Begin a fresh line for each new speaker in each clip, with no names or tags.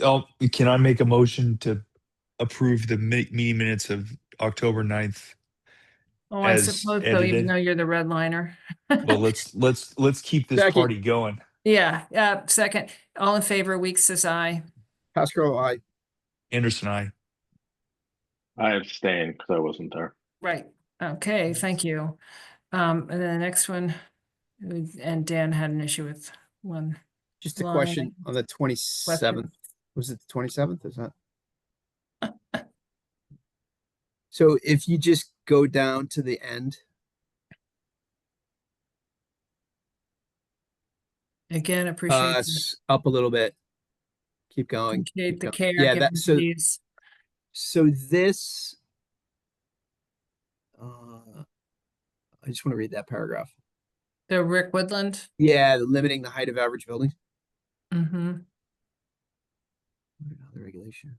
Oh, can I make a motion to approve the mi- meeting minutes of October 9th?
Oh, I
as
suppose so, even
edited.
though you're the redliner.
Well, let's, let's, let's keep this
Second.
party going.
Yeah, uh, second, all in favor, Weeks says aye.
Pascal, I,
Anderson, I.
I abstained because I wasn't there.
Right, okay, thank you. Um, and then the next one, we- and Dan had an issue with one.
just a
Line.
question on the twenty-seventh. Was it the twenty-seventh? Is that? So if you just go down to the end,
Again, appreciate.
uh,
the-
s- up a little bit. Keep going.
Appreciate the
go-
care.
uh, yeah,
given
that-
to
so-
these.
So this. uh, I just want to read that paragraph.
The Rick Woodland.
Yeah, the limiting the height of average building.
Mm-hmm.
What about The regulation.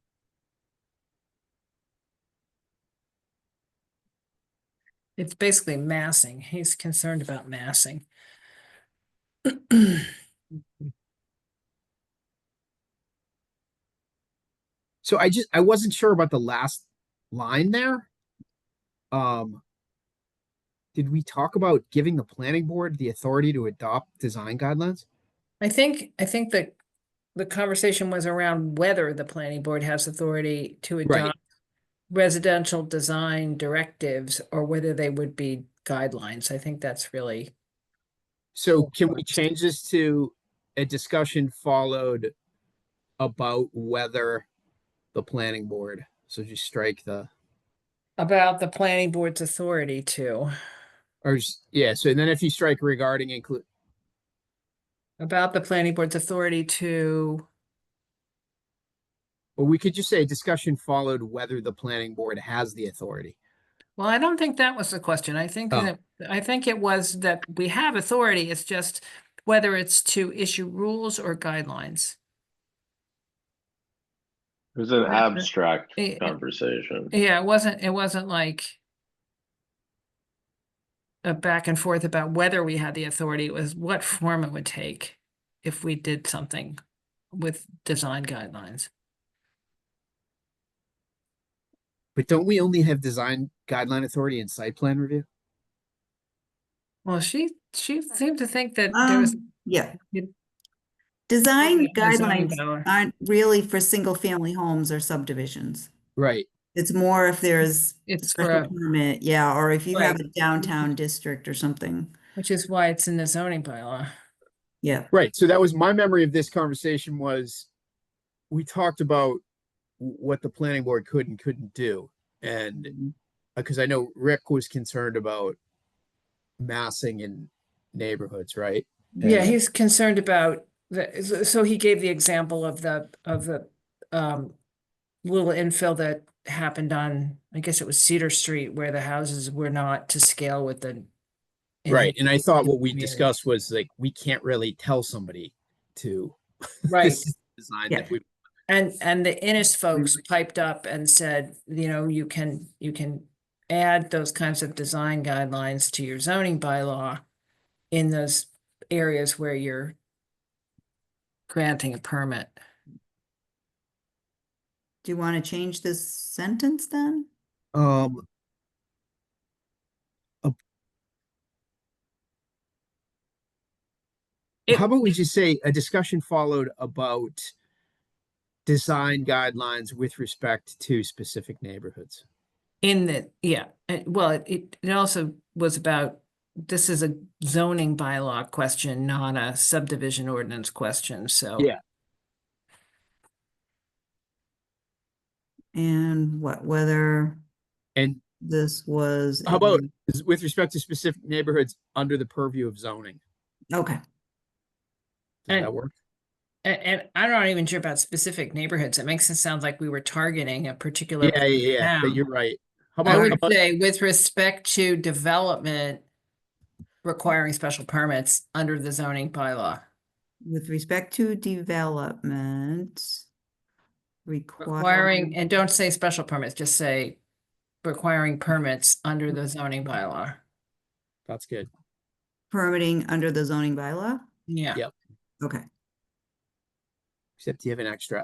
It's basically massing. He's concerned about massing.
So I just, I wasn't sure about the last line there. Um. Did we talk about giving the planning board the authority to adopt design guidelines?
I think, I think that the conversation was around whether the planning board has authority to adopt residential design directives or whether they would be guidelines. I think that's really,
So can we change this to a discussion followed about whether the planning board, so just strike the,
about the planning board's authority to,
or, s- yeah, so then if you strike regarding include,
about the planning board's authority to,
or we could just say discussion followed whether the planning board has the authority.
well, I don't think that was the question. I think
Oh.
that, I think it was that we have authority. It's just whether it's to issue rules or guidelines.
It was an
Right, but-
abstract
Yeah.
conversation.
Yeah, it wasn't, it wasn't like a back and forth about whether we had the authority, it was what form it would take if we did something with design guidelines.
But don't we only have design guideline authority and site plan review?
Well, she, she seemed to think that there was.
Um, Yeah.
you-
Um, Design
design
guidelines
power.
aren't really for single-family homes or subdivisions.
Right,
It's more if there's a
It's for,
special
a-
permit, yeah, or if you have
Right.
a downtown district or something.
which is why it's in the zoning bylaw.
Yeah,
right. So that was my memory of this conversation was we talked about w- what the planning board could and couldn't do. And because I know Rick was concerned about massing in neighborhoods, right?
Yeah, he's concerned about the, so- so he gave the example of the, of the, um, little infill that happened on, I guess it was Cedar Street where the houses were not to scale with the. in-
Right. And I thought what we
community.
discussed was like, we can't really tell somebody to
Right.
this is the design
Yeah.
that we,
And, and the Innis folks
Mm-hmm.
piped up and said, you know, you can, you can add those kinds of design guidelines to your zoning bylaw in those areas where you're granting a permit.
do you want to change this sentence then?
um. a-
It-
How about we just say a discussion followed about design guidelines with respect to specific neighborhoods?
In the, yeah, it- well, it- it, it also was about, this is a zoning bylaw question, not a subdivision ordinance question, so.
Yeah.
And what, whether
And
this was.
How about-
in-
is- with respect to specific neighborhoods under the purview of zoning.
Okay,
Does that
And-
work?
a- And, I'm not even sure about specific neighborhoods. It makes it sound like we were targeting a particular.
Yeah, yeah, yeah, but
now.
you're right.
I
How about, how
would
about-
say with respect to development requiring special permits under the zoning bylaw.
with respect to development.
Requiring, and don't say special permits, just say requiring permits under the zoning bylaw.
that's good.
Permitting under the zoning bylaw?
Yeah.
Yep.
Okay,
except you have an extra